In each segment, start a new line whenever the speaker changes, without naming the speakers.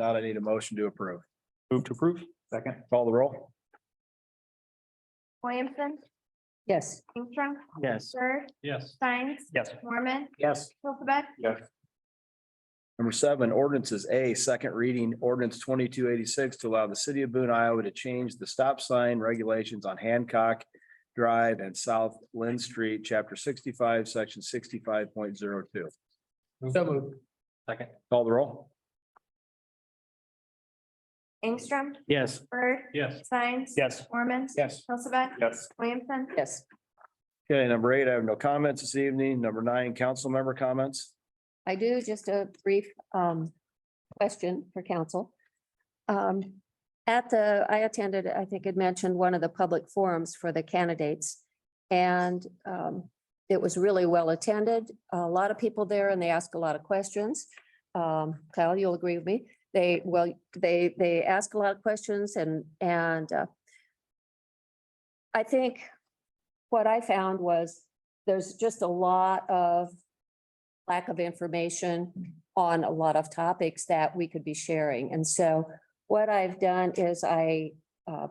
Not, I need a motion to approve.
Move to approve?
Second. Call the roll.
Williamson,
yes,
Ingstrom,
Yes.
Bird,
Yes.
Steins,
Yes.
Mormon,
Yes.
Hilsaback,
Number seven, ordinances A, second reading, ordinance twenty-two eighty-six to allow the city of Boone, Iowa to change the stop sign regulations on Hancock Drive and South Lynn Street, chapter sixty-five, section sixty-five point zero two.
So moved. Second.
Call the roll.
Ingstrom,
Yes.
Bird,
Yes.
Steins.
Yes.
Mormon,
Yes.
Hilsaback,
Yes.
Williamson,
yes.
Okay, number eight, I have no comments this evening. Number nine, council member comments.
I do just a brief um question for council. Um, at the, I attended, I think it mentioned one of the public forums for the candidates. And um, it was really well attended, a lot of people there and they ask a lot of questions. Um, Kyle, you'll agree with me. They, well, they, they ask a lot of questions and, and uh, I think what I found was there's just a lot of lack of information on a lot of topics that we could be sharing. And so what I've done is I uh,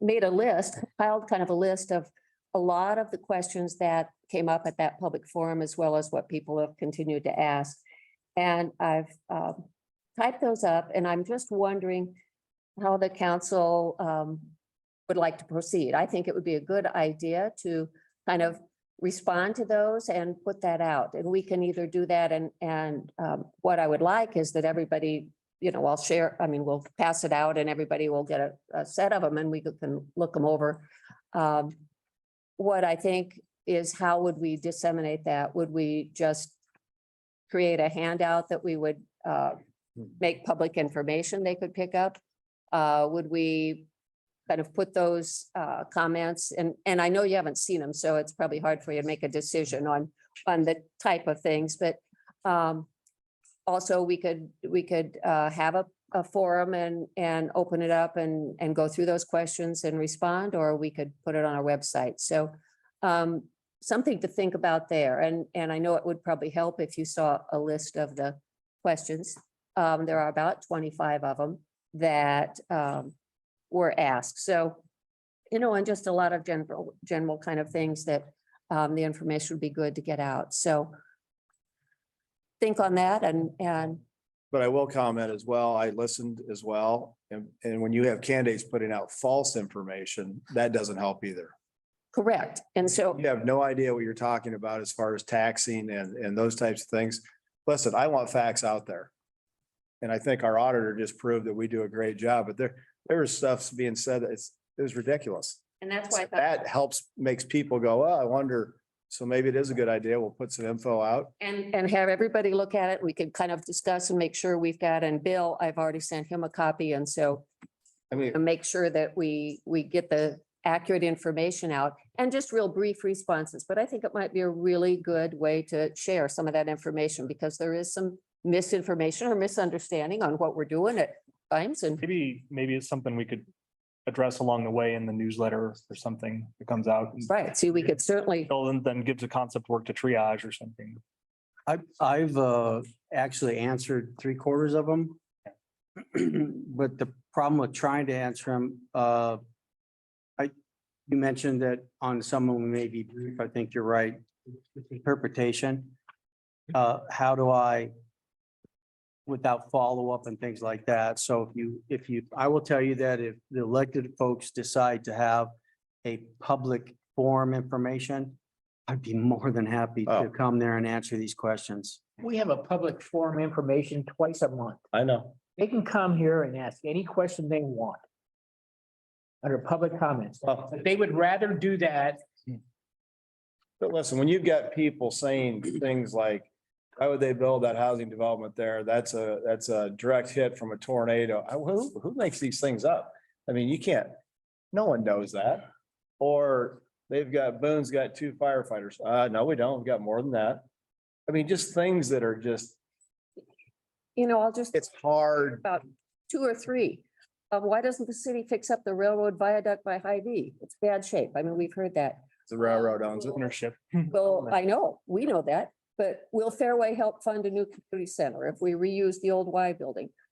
made a list, filed kind of a list of a lot of the questions that came up at that public forum, as well as what people have continued to ask. And I've um, typed those up, and I'm just wondering how the council um, would like to proceed. I think it would be a good idea to kind of respond to those and put that out. And we can either do that and, and um, what I would like is that everybody, you know, I'll share, I mean, we'll pass it out and everybody will get a, a set of them and we can look them over. Um, What I think is how would we disseminate that? Would we just create a handout that we would uh, make public information they could pick up? Uh, Would we kind of put those uh, comments, and, and I know you haven't seen them, so it's probably hard for you to make a decision on, on the type of things, but um, also, we could, we could uh, have a, a forum and, and open it up and, and go through those questions and respond, or we could put it on our website. So um, something to think about there, and, and I know it would probably help if you saw a list of the questions. Um, There are about twenty-five of them that um, were asked. So, you know, and just a lot of general, general kind of things that um, the information would be good to get out. So think on that and, and
But I will comment as well. I listened as well. And, and when you have candidates putting out false information, that doesn't help either.
correct. And so,
You have no idea what you're talking about as far as taxing and, and those types of things. Listen, I want facts out there. And I think our auditor just proved that we do a great job, but there, there was stuff being said that it's, it was ridiculous.
and that's why I thought,
That helps, makes people go, oh, I wonder, so maybe it is a good idea. We'll put some info out.
and, and have everybody look at it. We could kind of discuss and make sure we've got, and Bill, I've already sent him a copy. And so
I mean,
and make sure that we, we get the accurate information out and just real brief responses. But I think it might be a really good way to share some of that information because there is some misinformation or misunderstanding on what we're doing at times and
Maybe, maybe it's something we could address along the way in the newsletter or something that comes out.
right, see, we could certainly,
Bill Then, then gives a concept work to triage or something.
I, I've uh, actually answered three quarters of them. But the problem with trying to answer them, uh, I, you mentioned that on some of them may be brief. I think you're right. Interpretation. Uh, how do I, without follow-up and things like that? So if you, if you, I will tell you that if the elected folks decide to have a public forum information, I'd be more than happy
Oh.
to come there and answer these questions.
We have a public forum information twice a month.
I know.
They can come here and ask any question they want. Under public comments,
Well,
but they would rather do that.
But listen, when you've got people saying things like, why would they build that housing development there? That's a, that's a direct hit from a tornado. I- Who, who makes these things up? I mean, you can't, no one knows that. Or they've got, Boone's got two firefighters. Uh, no, we don't. We've got more than that. I mean, just things that are just,
you know, I'll just.
it's hard.
about two or three. Uh, why doesn't the city fix up the railroad viaduct by Hy-Vee? It's bad shape. I mean, we've heard that.
The railroad owns it.
Ownership.
Well, I know, we know that, but will Fairway help fund a new community center if we reuse the old Y building? Uh,